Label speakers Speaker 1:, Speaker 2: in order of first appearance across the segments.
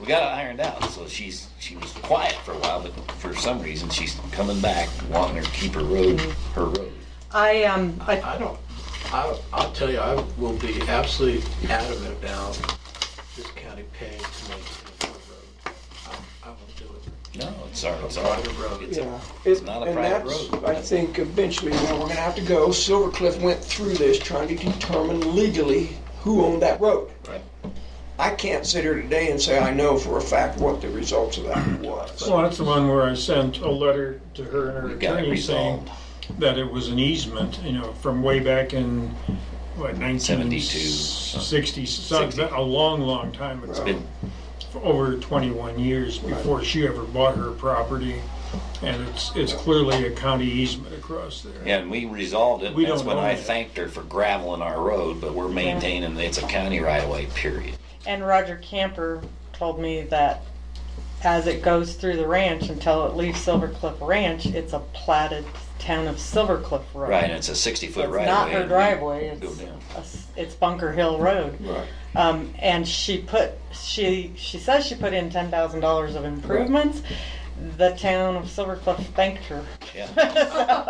Speaker 1: we got it ironed out. So she's she was quiet for a while, but for some reason she's coming back, wanting to keep her road, her road.
Speaker 2: I, um, I,
Speaker 3: I don't, I, I'll tell you, I will be absolutely adamant about this county paying to make it a road. I, I won't do it.
Speaker 1: No, it's our, it's
Speaker 3: A
Speaker 1: our
Speaker 3: private road.
Speaker 1: It's
Speaker 4: Yeah,
Speaker 1: a,
Speaker 4: it's
Speaker 1: not a
Speaker 4: and
Speaker 1: private
Speaker 4: that's,
Speaker 1: road.
Speaker 4: I think eventually where we're gonna have to go, Silver Cliff went through this trying to determine legally who owned that road.
Speaker 1: right?
Speaker 4: I can't sit here today and say I know for a fact what the results of that was.
Speaker 5: Well, that's the one where I sent a letter to her and her
Speaker 1: We got it
Speaker 5: attorney saying
Speaker 1: resolved.
Speaker 5: that it was an easement, you know, from way back in, what,
Speaker 1: 72,
Speaker 5: 1960,
Speaker 1: Sixty.
Speaker 5: something, a long, long time ago.
Speaker 1: Been
Speaker 5: for over 21 years before she ever bought her property. And it's, it's clearly a county easement across there.
Speaker 1: Yeah, and we resolved it.
Speaker 5: We
Speaker 1: That's
Speaker 5: don't
Speaker 1: when
Speaker 5: own
Speaker 1: I
Speaker 5: it.
Speaker 1: thanked her for graveling our road, but we're maintaining, it's a county right of way, period.
Speaker 2: and Roger Camper told me that as it goes through the ranch until it leaves Silver Cliff Ranch, it's a platted town of Silver Cliff Road.
Speaker 1: Right, and it's a sixty foot
Speaker 2: It's
Speaker 1: right of
Speaker 2: not
Speaker 1: way.
Speaker 2: her driveway,
Speaker 1: Go
Speaker 2: it's,
Speaker 1: down.
Speaker 2: a s- it's Bunker Hill Road.
Speaker 4: Right.
Speaker 2: Um, and she put, she, she says she put in ten thousand dollars of improvements. The town of Silver Cliff thanked her.
Speaker 1: Yeah.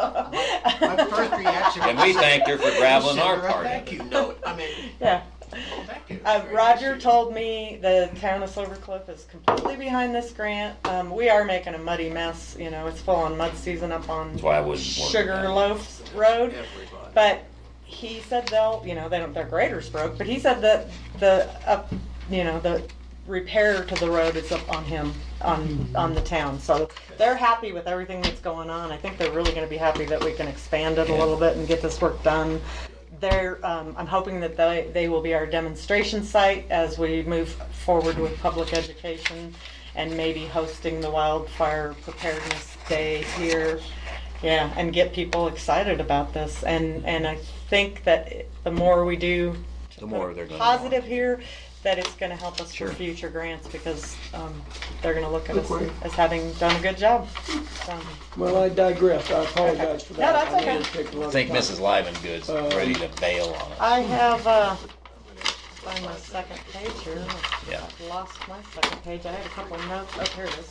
Speaker 3: My first reaction.
Speaker 1: And we thanked her for graveling our
Speaker 3: Sandra,
Speaker 1: part of
Speaker 3: Thank
Speaker 1: it.
Speaker 3: you, no, I mean,
Speaker 2: Yeah.
Speaker 3: thank you.
Speaker 2: Uh, Roger told me the town of Silver Cliff is completely behind this grant. Um, we are making a muddy mess, you know, it's full on mud season up on
Speaker 1: That's why I wouldn't worry about it.
Speaker 2: Sugarloaf Road.
Speaker 3: Everybody.
Speaker 2: But he said they'll, you know, they don't, their graders broke, but he said that the, up, you know, the repair to the road is up on him, on, on the town. So they're happy with everything that's going on. I think they're really gonna be happy that we can expand it a little bit and get this work done. They're, um, I'm hoping that they, they will be our demonstration site as we move forward with public education and maybe hosting the wildfire preparedness day here. Yeah, and get people excited about this. And and I think that it- the more we do,
Speaker 1: The more they're gonna want.
Speaker 2: positive here, that it's going to help us
Speaker 1: Sure.
Speaker 2: for future grants because um, they're going to look at us
Speaker 4: Okay.
Speaker 2: as having done a good job. So,
Speaker 4: Well, I digress, I apologize for that.
Speaker 2: that's okay.
Speaker 1: I think Mrs. Livengood's
Speaker 5: Uh,
Speaker 1: ready to bail on it.
Speaker 2: I have uh, on my second page here.
Speaker 1: Yeah.
Speaker 2: I've lost my second page. I had a couple of notes. Oh, here it is.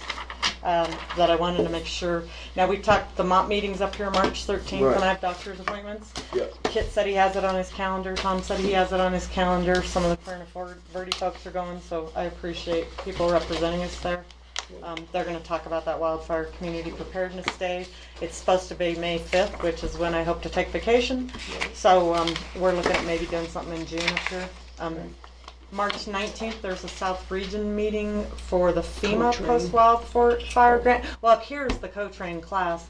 Speaker 2: Um, that I wanted to make sure. Now we talked the MOP meetings up here March 13th,
Speaker 4: Right.
Speaker 2: and I have doctor's appointments.
Speaker 4: Yep.
Speaker 2: Kit said he has it on his calendar. Tom said he has it on his calendar. Some of the Corona Ford- Verde folks are going, so I appreciate people representing us there. Um, they're going to talk about that wildfire community preparedness day. It's supposed to be May 5th, which is when I hope to take vacation. So um, we're looking at maybe doing something in June up here. Um, March 19th, there's a South Region meeting for the FEMA
Speaker 4: Co-train.
Speaker 2: post-wildfire grant. Well, up here is the co-train class.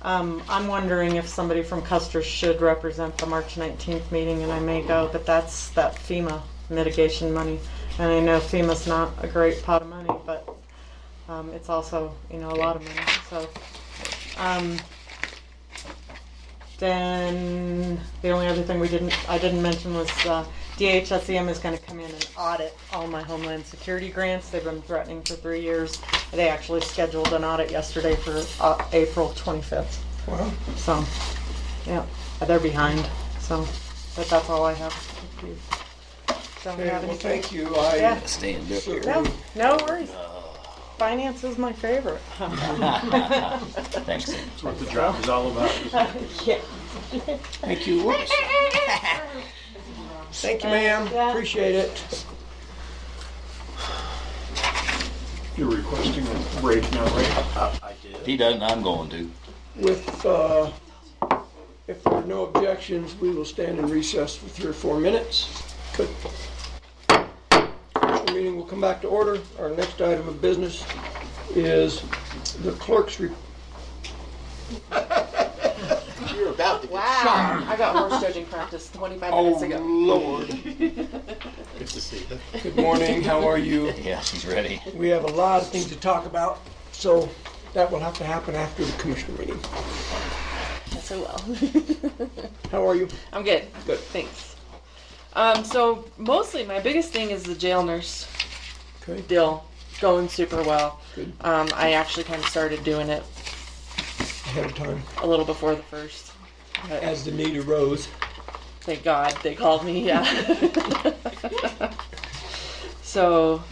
Speaker 2: Um, I'm wondering if somebody from Custer should represent the March 19th meeting, and I may go, but that's that FEMA mitigation money. And I know FEMA's not a great pot of money, but um, it's also, you know, a lot of money, so. um, Then, the only other thing we didn't, I didn't mention was uh, DHSEM is gonna come in and audit all my Homeland Security grants. They've been threatening for three years. They actually scheduled an audit yesterday for uh, April 25th.
Speaker 4: Well,
Speaker 2: So, yeah, they're behind, so, but that's all I have. If you Don't
Speaker 4: okay,
Speaker 2: have
Speaker 4: well,
Speaker 2: anything.
Speaker 4: thank you, I
Speaker 2: Yeah.
Speaker 1: Stand up here.
Speaker 4: certainly
Speaker 2: No, no worries. Finance is my favorite.
Speaker 1: Thanks. Sam.
Speaker 3: That's what the job is all about.
Speaker 2: Yeah.
Speaker 4: Thank you. Whoops. Thank you, ma'am.
Speaker 2: Yeah.
Speaker 4: Appreciate it.
Speaker 5: You're requesting a break now, right?
Speaker 3: I I did.
Speaker 1: If he doesn't, I'm going to.
Speaker 4: With, uh, if there are no objections, we will stand in recess for three or four minutes. Good. Our meeting will come back to order. Our next item of business is the clerk's report.
Speaker 6: Wow. I got horse judging practice 25
Speaker 4: Oh,
Speaker 6: minutes ago.
Speaker 4: Lord.
Speaker 3: Good to see you.
Speaker 4: Good morning. How are you?
Speaker 1: Yeah, he's ready.
Speaker 4: We have a lot of things to talk about, so that will have to happen after the commissioner meeting.
Speaker 6: So well.
Speaker 4: How are you?
Speaker 6: I'm good.
Speaker 4: Good.
Speaker 6: Thanks. Um, so mostly my biggest thing is the jail nurse
Speaker 4: Okay.
Speaker 6: deal going super well.
Speaker 4: Good.
Speaker 6: Um, I actually kind of started doing it
Speaker 4: Ahead of time,
Speaker 6: a little before the first. But
Speaker 4: as the need arose.
Speaker 6: thank God they called me. Yeah. so